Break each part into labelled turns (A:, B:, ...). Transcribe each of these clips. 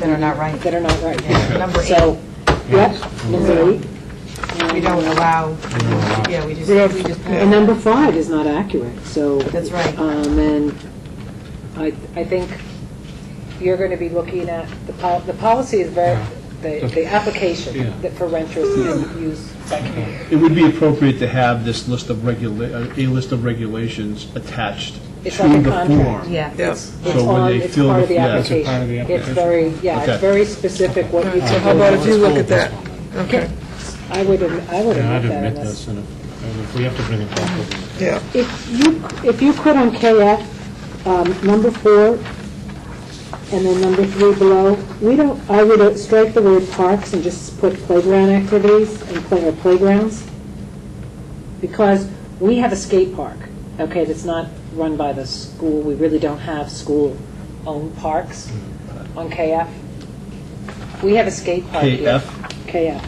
A: that are not right.
B: that are not right now.
A: Number
B: So, yep, number eight.
A: We don't allow, yeah, we just, we just.
B: And number five is not accurate, so.
A: That's right.
B: Um, and I, I think you're going to be looking at, the pol, the policy is very, the, the
C: Yeah.
B: application that for renters and use by community.
C: It would be appropriate to have this list of regula, uh, a list of regulations attached to the
B: It's like a contract.
C: form.
A: Yeah.
D: Yes.
B: It's
C: So when
B: on,
C: they
B: it's
C: fill
B: part
C: the-
B: of the
C: yeah, it's a
B: application.
E: part of the application.
B: very, yeah,
C: Okay.
B: it's very specific what you.
D: So how about if you look at that? Okay,
B: I would, adm- I would
E: Yeah, I'd
B: admit that
E: admit
B: unless.
E: this, and if- and if we have to bring it back, we'll bring it
D: yeah.
B: If you, if you could on KF, um, number four, and then number three below, we don't, I would uh, strike the word parks and just put playground activities and play, or playgrounds, because we have a skate park, okay, that's not run by the school, we really don't have school-owned parks on KF. We have a skate park here.
C: KF,
B: KF,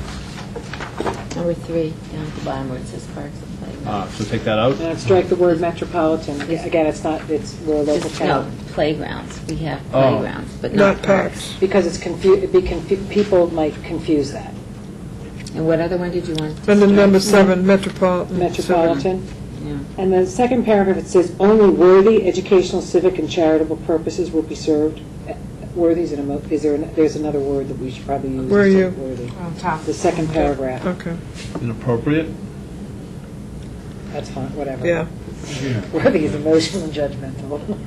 F: Number three, down at the bottom where it says parks and playgrounds.
C: uh, so take that out.
B: and I'd strike the word metropolitan, again, it's not, it's, we're a local
F: Just, no,
B: town.
F: playgrounds. We have
C: Oh.
F: playgrounds, but not
D: Not
F: parks.
D: parks.
B: Because it's confu, it'd be confu, people might confuse that.
D: Mm-hmm.
F: And what other one did you want?
D: And then number seven, metropolitan.
B: Metropolitan.
F: Yeah.
B: And the second paragraph, it says, "Only worthy educational, civic, and charitable purposes will be served." Uh, Worthy is an emo, is there, an- there's another word that we should probably use.
D: Where are you? Oh.
B: Worthy.
A: On top.
B: The second paragraph,
D: Okay,
C: Inappropriate?
B: that's fine, whatever.
D: yeah.
E: back.
B: Worthy is emotional and judgmental.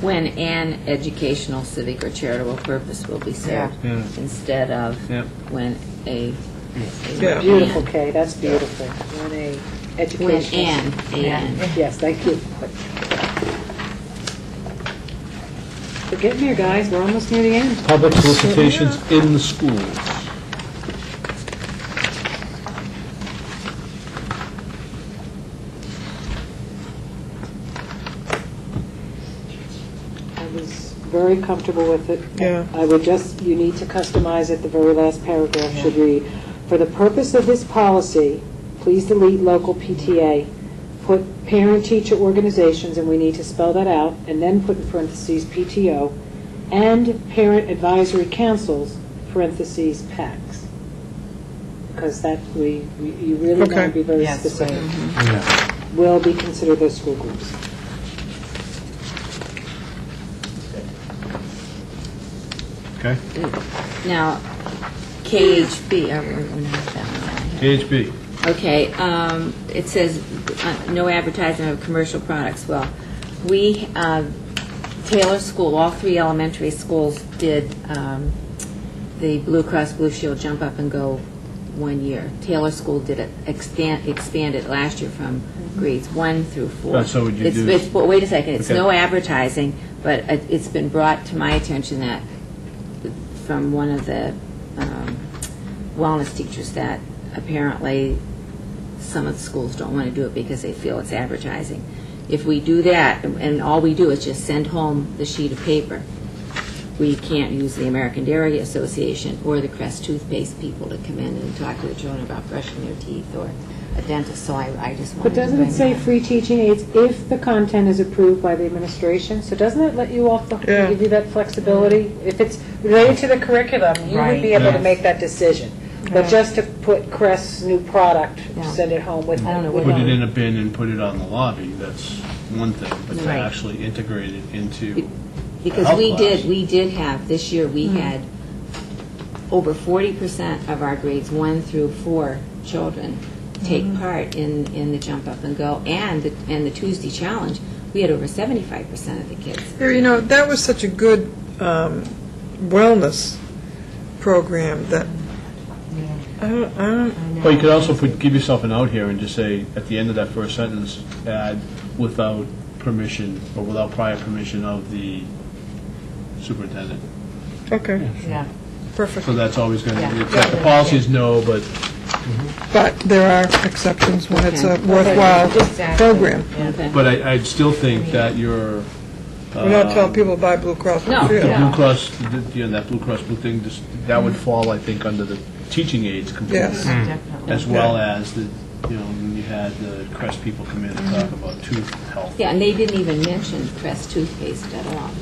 F: When an educational, civic, or charitable purpose will be served,
C: Yeah. Yeah.
F: instead of
C: Yep.
F: when a. a-
D: Yeah.
B: Beautiful, Kay, that's beautiful. When a educational.
F: When an, an.
B: Yes, thank you. But get here, guys, we're almost near the end.
C: Public solicitations in the schools.
B: I was very comfortable with it.
D: Yeah.
B: I would just, you need to customize it, the very last paragraph should read, "For the purpose of this policy, please delete local PTA, put parent-teacher organizations," and we need to spell that out, and then put in parentheses PTO, "and parent advisory councils," parentheses PACs. Because that, we, we- you really want to
D: Okay.
B: be very
A: Yes, Mm-hmm. right.
B: specific.
E: Yeah.
B: Will be considered those school groups.
E: Okay?
F: Now, KHB, oh, we're we're not that one.
C: KHB.
F: Okay, um, it says, uh, no advertising of commercial products. Well, we, uh, Taylor School, all three elementary schools did um, the Blue Cross Blue Shield Jump Up and Go one year. Taylor School did it, extend- expanded last year from grades one through four.
C: Right, Oh, so would you
F: It's-
C: do-
F: it's- well, Wait a second, it's
C: Okay.
F: no advertising, but it- it's been brought to my attention that, from one of the um, wellness teachers, that apparently some of the schools don't want to do it because they feel it's advertising. If we do that, and all we do is just send home the sheet of paper, we can't use the American Dairy Association or the Crest toothpaste people to come in and talk to the children about brushing their teeth or a dentist, so I, I just wanted
B: But
F: to
B: doesn't it
F: bring
B: say
F: that.
B: free teaching aids if the content is approved by the administration? So doesn't it let you off the, hook to
D: Yeah.
B: give you that flexibility? If it's related to the curriculum, you would be
A: Right.
B: able to
C: Yeah.
B: make that decision. But
A: Right.
B: just to put Crest's new product,
F: Yeah.
B: send it home with.
F: I don't know
B: with
F: what
C: Put
B: them.
C: it in a bin and put it on the lobby, that's one thing, but to
F: Right.
C: actually integrate it into,
F: Because
C: Health
F: we
C: class.
F: did, we did have, this year, we had over forty percent of our grades one through four children take part in, in the Jump Up and Go and, the and the Tuesday Challenge. We had over seventy-five percent of the kids.
D: Here, you know, that was such a good um, wellness program that, I don't, I don't,
C: but you could also put, give yourself an out here and just say, at the end of that first sentence, add without permission, or without prior permission of the superintendent.
D: okay,
A: Yeah.
D: perfect.
C: So that's always going to,
A: Yeah.
C: be the policy is no, but
D: But there are exceptions when it's a
F: Okay.
D: worthwhile
A: Exactly.
D: program.
F: Okay.
C: But I, I still think that your.
D: We're not telling people to buy Blue Cross Blue
F: No.
D: Shield.
C: The Blue Cross, the- you know, that Blue Cross Blue thing, just- that would fall, I think, under the teaching aids completely.
D: Yes.
A: Definitely.
C: As well as the you know, when you had the Crest people come in and talk about tooth health.
F: Yeah, and they didn't even mention Crest toothpaste at all.